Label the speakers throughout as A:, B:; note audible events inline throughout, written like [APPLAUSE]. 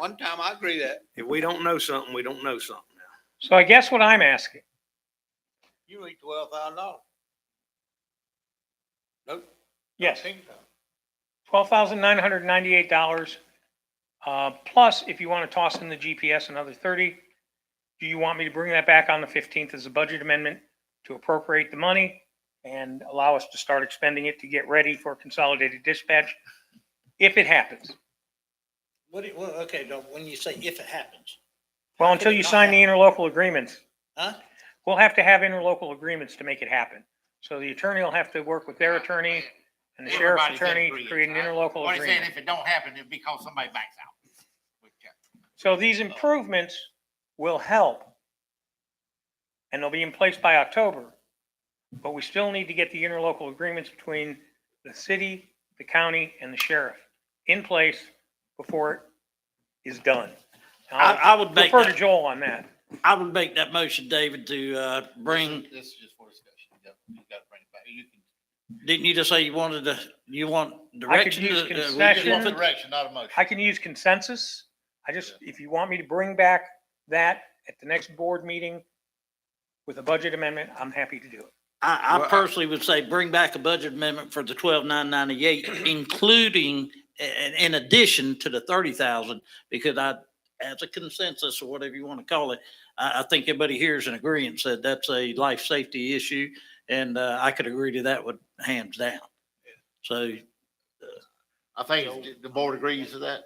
A: One time I agree that,
B: If we don't know something, we don't know something now.
C: So I guess what I'm asking,
A: you need twelve thousand dollars. Nope.
C: yes,
A: Ten thousand.
C: twelve thousand nine hundred ninety-eight dollars. Uh, plus, if you want to toss in the GPS, another thirty. Do you want me to bring that back on the fifteenth as a budget amendment to appropriate the money and allow us to start expending it to get ready for consolidated dispatch? If it happens.
D: What, do you- well, okay, don't- when you say if it happens,
C: Well, until you sign the interlocal agreements,
D: huh?
C: we'll have to have interlocal agreements to make it happen. So the attorney will have to work with their attorney and the sheriff's
E: Everybody's gotta
C: attorney to
E: agree,
C: create an
E: right?
C: interlocal
E: What he's saying,
C: agreement.
E: if it don't happen, it'd be because somebody backs out.
C: So these improvements will help. And they'll be in place by October. But we still need to get the interlocal agreements between the city, the county, and the sheriff in place before it is done.
D: I,
C: I'll
D: I would make,
C: Refer to
D: that-
C: Joel on that.
D: I would make that motion, David, to, uh, bring,
E: This is just for discussion. You gotta- You gotta bring it back. You can-
D: didn't you just say you wanted to, you want
C: I could
D: direction?
C: use
D: to- uh, we just
E: You just want
D: want
C: concession.
D: the-
E: direction, not a
C: I
E: motion.
C: can use consensus. I just, if you want me to bring back that at the next board meeting with a budget amendment, I'm happy to do it.
D: I, I
E: Well, I-
D: personally would say bring back a budget amendment for the twelve nine
E: [CLEARS THROAT]
D: ninety-eight, including, in, in addition to the thirty thousand, because I, as a consensus or whatever you want to call it, I, I think everybody here is in agreement, said that's a life safety issue, and, uh, I could agree to that with hands down. So
E: I think the board agrees to that.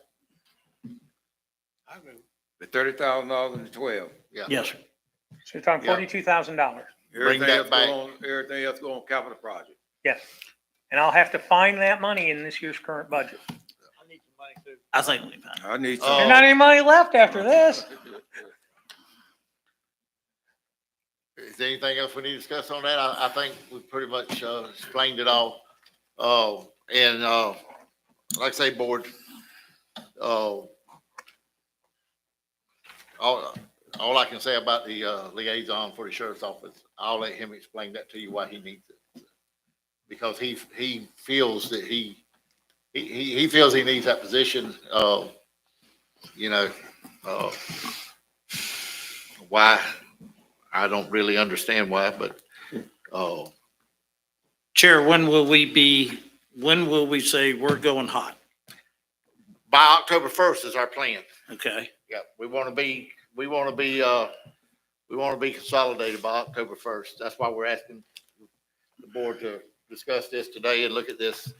A: I agree.
F: The thirty thousand dollars and the twelve.
D: Yes, sir.
C: So you're talking
E: Yeah.
C: forty-two thousand dollars.
E: Bring
F: Everything
E: that
F: else
E: back.
F: go on, everything else go on capital project.
C: Yes. And I'll have to find that money in this year's current budget.
A: I need some money too.
D: I think we found it.
F: I need
E: Oh.
C: There's
F: some.
C: not any money left after this.
E: Is there anything else we need to discuss on that? I, I think we pretty much, uh, explained it all. Uh, and, uh, like I say, board, uh, all, all I can say about the, uh, liaison for the sheriff's office, I'll let him explain that to you why he needs it. Because he, he feels that he, he, he he feels he needs that position, uh, you know, uh, why, I don't really understand why, but, oh,
D: Chair, when will we be, when will we say we're going hot?
E: by October first is our plan.
D: Okay,
E: Yeah, we want to be, we want to be, uh, we want to be consolidated by October first. That's why we're asking the board to discuss this today and look at this.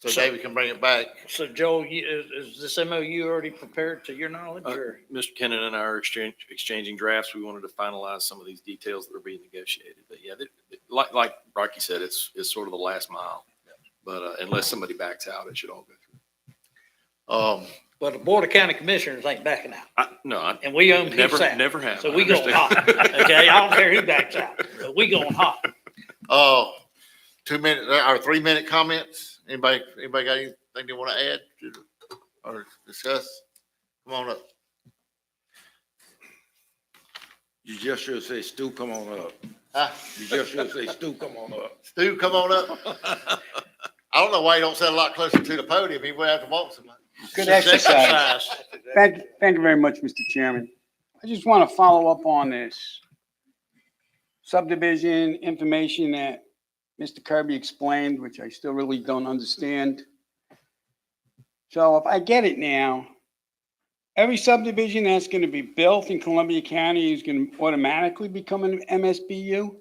E: So
D: So-
E: David can bring it back.
D: so Joel, you- is, is this MOU already prepared to your knowledge
G: Uh,
D: or?
G: Mr. Kennon and I are exchange, exchanging drafts. We wanted to finalize some of these details that are being negotiated. But yeah, th- th- like, like Rocky said, it's, it's sort of the last mile. But uh, unless somebody backs out, it should all go through.
E: Um,
D: But the Board of County Commissioners ain't backing out
G: I- No, I
D: and we own
G: never,
D: peace out.
G: never have.
D: So
G: I
D: we going hot.
G: [LAUGHS] understand.
D: Okay, I don't care who backs out, but we going hot.
E: uh, two minute, uh, or three minute comments. Anybody, anybody got anything they want to add to- or discuss? Come on up.
F: You just should say, Stu, come on up.
E: Huh?
F: You just should say, Stu, come on up.
E: Stu, come on up. I don't know why you don't sit a lot closer to the podium. He would have to walk some.
H: Good exercise.
D: Exercise.
H: Thank, thank you very much, Mr. Chairman. I just want to follow up on this subdivision information that Mr. Kirby explained, which I still really don't understand. So if I get it now, every subdivision that's going to be built in Columbia County is going to automatically become an MSBU?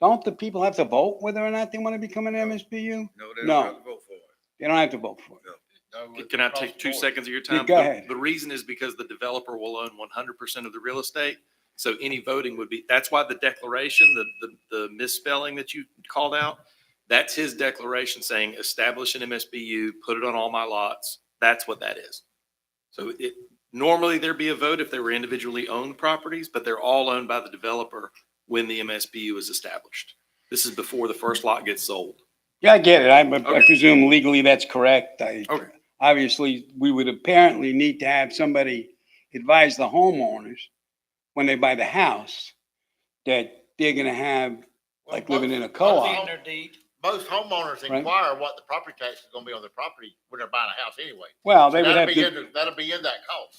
H: Don't the people have to vote whether or not they want to become an MSBU?
F: No, they
H: No.
F: don't have to vote for it.
H: They don't have to vote for it.
G: Can I take two seconds of your
H: Yeah,
G: time?
H: go
G: The-
H: ahead.
G: The reason is because the developer will own one hundred percent of the real estate. So any voting would be, that's why the declaration, the, the, the misspelling that you called out, that's his declaration saying, establish an MSBU, put it on all my lots. That's what that is. So it, normally there'd be a vote if they were individually owned properties, but they're all owned by the developer when the MSBU is established. This is before the first lot gets sold.
H: Yeah, I get it. I, I
G: Okay.
H: presume legally that's correct. I,
G: Okay.
H: obviously, we would apparently need to have somebody advise the homeowners when they buy the house that they're gonna have, like, living in a co-op.
D: Their deed.
E: Most homeowners
H: Right.
E: inquire what the property tax is gonna be on their property when they're buying a house anyway.
H: Well, they would
E: That'll
H: have
E: be
H: to,
E: in, that'll be in that cost.